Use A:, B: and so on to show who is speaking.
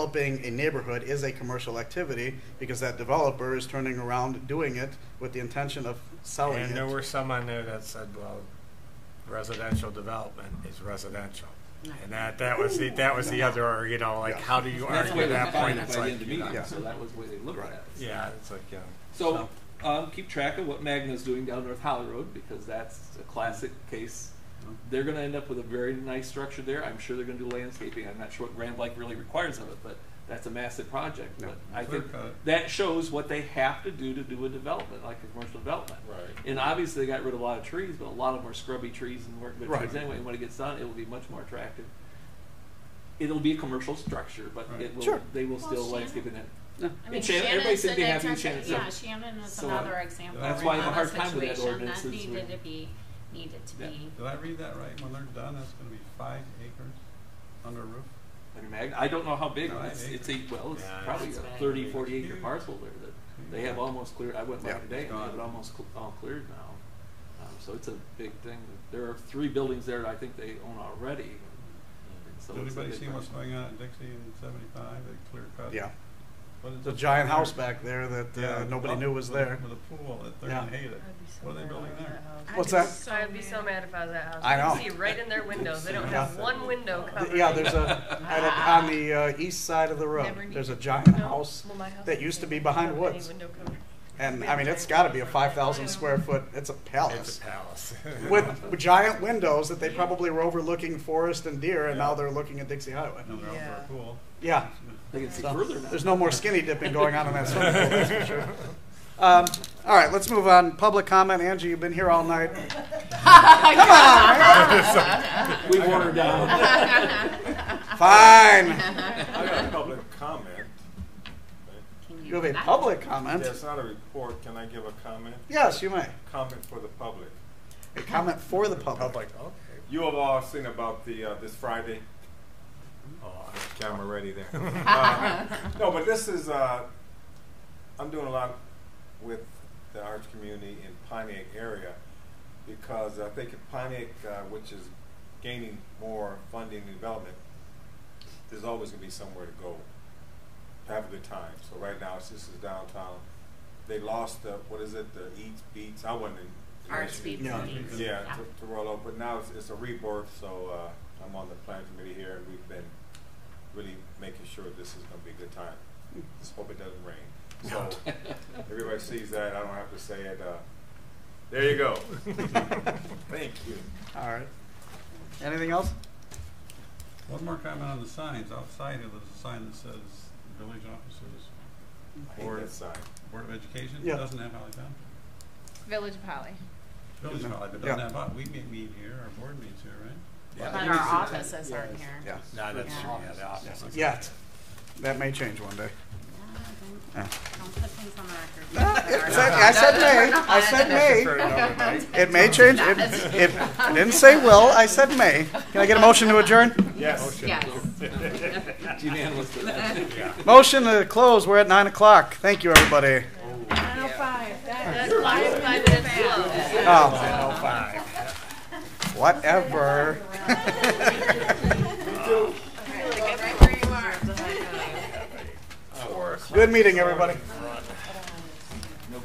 A: developing a neighborhood is a commercial activity because that developer is turning around doing it with the intention of
B: Oh,
A: selling
C: And there
A: it.
C: were some on there that said, well, residential development is residential. And that, that was the, that was the other, you know, like,
A: Yeah.
C: how do you
D: That's the way
C: argue
D: they
C: that
D: defined
C: point?
D: it
C: It's
D: by the end
C: like,
D: of
C: you
D: the
C: know,
D: meeting,
A: yeah.
D: so that was the way they looked at
A: Right.
D: it.
C: yeah, it's like, yeah.
D: So, um, keep track of what Magna's doing down North Holly Road, because that's a classic case. They're gonna end up with a very nice structure there, I'm sure they're gonna do landscaping, I'm not sure what Grand Lake really requires of it, but that's a massive project,
A: Yeah.
D: but I think
C: Clear cut.
D: that shows what they have to do to do a development, like a commercial development.
B: Right.
D: And obviously, they got rid of a lot of trees, but a lot of them are scrubby trees and weren't good
A: Right.
D: trees anyway, and when it gets done, it will be much more attractive. It'll be a commercial structure, but it will,
A: Sure.
D: they will
E: Well,
D: still
E: Shannon-
D: landscape it in.
E: I mean,
D: And Shannon-
E: Shannon's
D: everybody said
E: an
D: they have
E: example-
D: used Shannon's
E: Yeah,
D: stuff.
E: Shannon is
D: So,
E: another example.
C: that's why I
D: have a
E: of
D: hard time with that
E: situation
D: ordinance
E: That
D: is we-
E: needed to be, needed to
D: Yeah.
E: be.
F: Did I read that right? When they're done, it's gonna be five acres under roof?
D: I mean, Mag- I don't know how big,
F: No, I
D: it's,
F: agree.
D: it's a, well, it's
C: Yeah,
D: probably a
E: it's big.
D: 30, 40 acre
F: Huge.
D: parcel there that they have almost cleared, I went by
A: Yeah.
D: today and they have it
F: Gone.
D: almost cl- all cleared now. Um, so it's a big thing, there are three buildings there that I think they own already. and so
F: Did
D: it's a
F: anybody
D: big
F: see what's
D: project.
F: going on at Dixie and seventy-five, they clear cut?
A: Yeah,
F: What is
A: the
F: it?
A: giant house back there that
F: Yeah,
A: uh, nobody
F: up
A: knew was
F: with-
A: there.
F: With a pool, that they're
A: Yeah.
F: gonna hate it. What are they building there?
A: What's that?
G: So I'd be so mad if I was that house.
A: I know.
G: You can see right in their windows. They don't have
F: Yeah.
G: one window covered.
A: Yeah, there's a, at a- on the uh, east side of the road,
G: Never knew.
A: there's a giant
G: No.
A: house.
G: Well, my house
A: that used to be
G: doesn't
A: behind
G: have
A: woods.
G: Any window covered.
A: And I mean, it's gotta be a five thousand square foot, it's a
C: It's
A: palace.
C: a palace.
A: With giant windows that they probably were overlooking forest and deer and now they're looking at Dixie Highway.
F: Another outdoor
G: Yeah.
F: pool.
A: Yeah,
D: They can see
A: So,
D: further now.
A: There's no more skinny dipping going on in that swimming pool, that's for sure. Um, all right, let's move on. Public comment. Angie, you've been here all night.
D: We've worn her down.
A: Fine.
B: I got a public comment.
E: Can
A: You have a
E: do that?
A: public comment.
B: That's not a report, can I give a comment?
A: Yes, you may.
B: Comment for the public.
A: A comment for the
C: I'm
A: public.
C: like, okay.
B: You have all seen about the, uh, this Friday,
C: Oh, I-
B: camera ready there. Uh, No, but this is, uh, I'm doing a lot with the arts community in Pontiac area because I think in Pontiac, uh, which is gaining more funding and development, there's always gonna be somewhere to go to have a good time. So right now, it's this is downtown. They lost the, what is it, the Eats Beats, I wasn't in.
E: Arts beats
A: Yeah.
E: beats.
B: Yeah, to, to roll over, but now it's, it's a rebirth, so, uh, I'm on the planning committee here, and we've been really making sure this is gonna be a good time. Just hope it doesn't rain. So, everybody sees that, I don't have to say it, uh, there you go. Thank you.
A: All right. Anything else?
F: One more comment on the signs. Outside here, there's a sign that says village officers,
B: I hate that sign.
F: Board of Education. It
A: Yeah.
F: doesn't have Holly Township.
H: Village of Holly.
F: Village
A: Yeah.
F: Holly, but
A: Yeah.
F: doesn't have, Holly. we meet, meet here, our board meets here, right?
E: But
C: Yeah,
E: our offices aren't here.
A: Yeah.
C: no, that's,
E: Yeah.
C: true. yeah, the office. is-
A: Yeah. it's- That may change one day.
E: No,
A: Yeah.
E: Don't don't put things on the
A: No,
E: record.
A: it said- I said may. I said may. It may change. It, it I didn't say will. I said may. Can I get a motion to adjourn?
B: Yes.
E: Yes.
D: Unanimous for that.
A: Motion to close. We're at nine o'clock. Thank you, everybody.
G: That's five, five minutes slow.
A: Oh,
C: Oh, fine.
A: whatever.
G: I feel like I'm right where you are. uh,
F: Oh,
A: Good meeting, everybody.